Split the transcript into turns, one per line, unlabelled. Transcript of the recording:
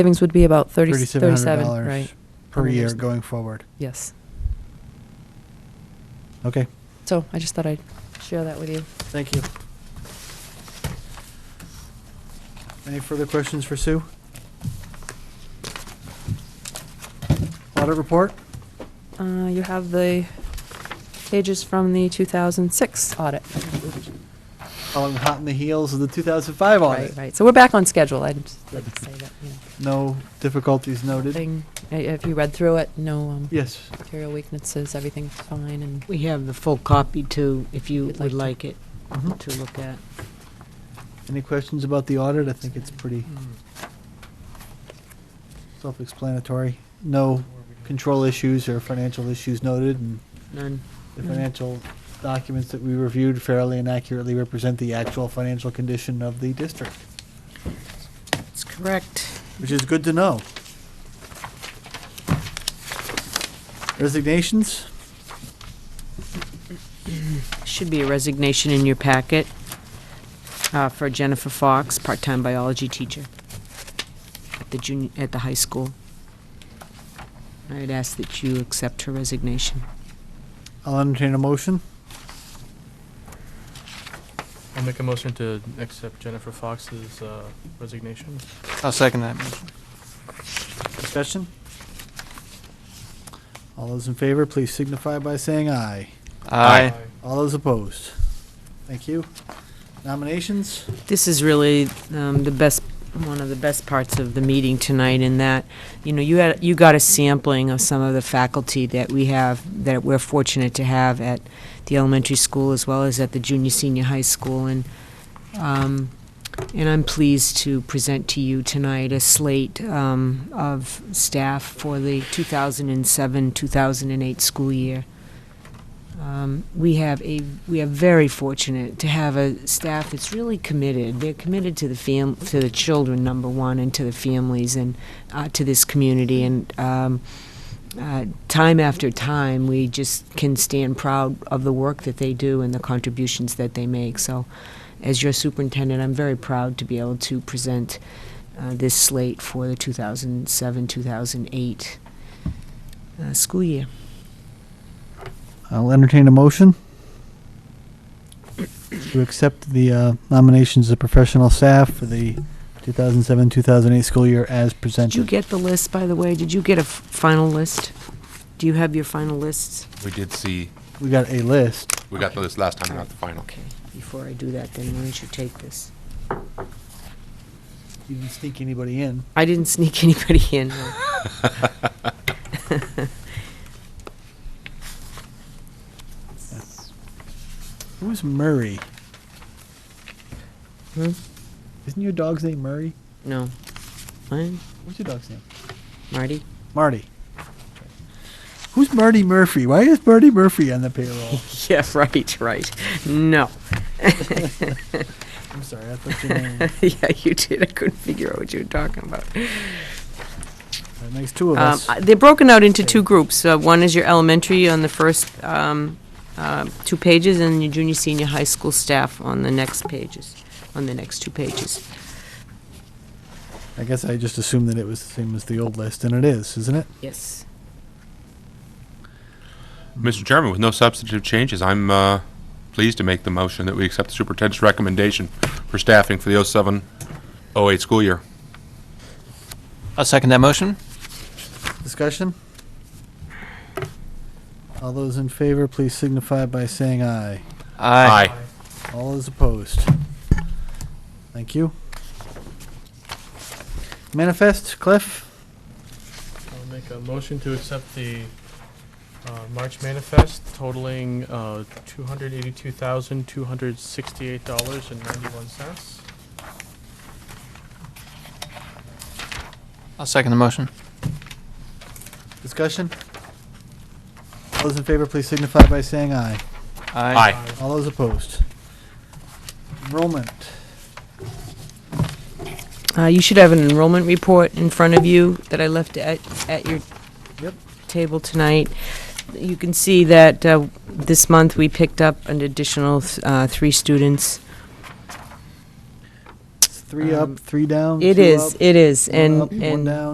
Savings would be about 30,
Thirty-seven
37,
hundred
right,
dollars per
Under
year
those-
going forward.
yes.
Okay.
So I just thought I'd share that with you.
Thank you. Any further questions for Sue? Audit report?
Uh, You have the pages from the 2006 audit.
Calling hot in the heels of the 2005
Right,
audit.
right, so we're back on schedule, I'd just like to say that, you know.
No difficulties noted.
Nothing, uh, if you read through it, no um,
Yes.
material weaknesses, everything's fine, and
We have the full copy too, if you
You'd like
would
Mm-hmm.
like it
Mhm.
to look at.
Any questions about the audit? I think it's pretty self-explanatory. No control issues or financial issues noted, and
None.
the
Mm.
financial documents that we reviewed fairly and accurately represent the actual financial condition of the district,
That's correct.
which is good to know. Resignations?
Should be a resignation in your packet uh, for Jennifer Fox, part-time biology teacher at the junior, at the high school. I'd ask that you accept her resignation.
I'll entertain a motion.
I'll make a motion to accept Jennifer Fox's uh, resignation.
I'll second that motion.
Discussion? All those in favor, please signify by saying aye.
Aye.
All those opposed? Thank you. Nominations?
This is really um, the best, one of the best parts of the meeting tonight in that, you know, you had, you got a sampling of some of the faculty that we have, that we're fortunate to have at the elementary school as well as at the junior, senior high school. And, um, and I'm pleased to present to you tonight a slate um, of staff for the 2007-2008 school year. Um, we have a we are very fortunate to have a staff that's really committed. They're committed to the fam to the children number one, and to the families, and uh, to this community. And um, uh, time after time, we just can stand proud of the work that they do and the contributions that they make. So, as your superintendent, I'm very proud to be able to present uh, this slate for the 2007-2008 uh, school year.
I'll entertain a motion to accept the uh, nominations of professional staff for the 2007-2008 school year as
Did you
presented.
get the list, by the way? Did you get a f- final list? Do you have your final lists?
We did see,
We got a list.
we got this last time, not the final.
Okay, before I do that, then why don't you take this?
You didn't sneak anybody in.
I didn't sneak anybody in. no.
It was Murray.
Hmm?
Isn't your dog's name Murray?
No. Mine?
What's your dog's name?
Marty?
Marty. Who's Marty Murphy? Why is Marty Murphy on the payroll?
Yeah, right, right. No.
I'm sorry, I thought your name.
Yeah, you did. I couldn't figure out what you were talking about.
That makes two of
Um,
us.
I- They're broken out into two groups. Uh, One is your elementary on the first um, uh, two pages, and your junior, senior high school staff on the next pages, on the next two pages.
I guess I just assumed that it was the same as the old list, and it is, isn't it?
Yes.
Mr. Chairman, with no substantive changes, I'm uh, pleased to make the motion that we accept the superintendent's recommendation for staffing for the 07-08 school year.
I'll second that motion.
Discussion? All those in favor, please signify by saying aye.
Aye.
All those opposed? Thank you. Manifest, Cliff?
I'll make a motion to accept the uh, March manifest totaling uh, $282,268.91.
I'll second the motion.
Discussion? All those in favor, please signify by saying aye.
Aye.
All those opposed? Enrollment.
Uh, you should have an enrollment report in front of you that I left at, at your
Yep.
table tonight. You can see that uh, this month we picked up an additional th- uh, three students.
It's three
Um,
up, three down?
It
two
is,
up,
it is,
one
and,
up,
and.
One down?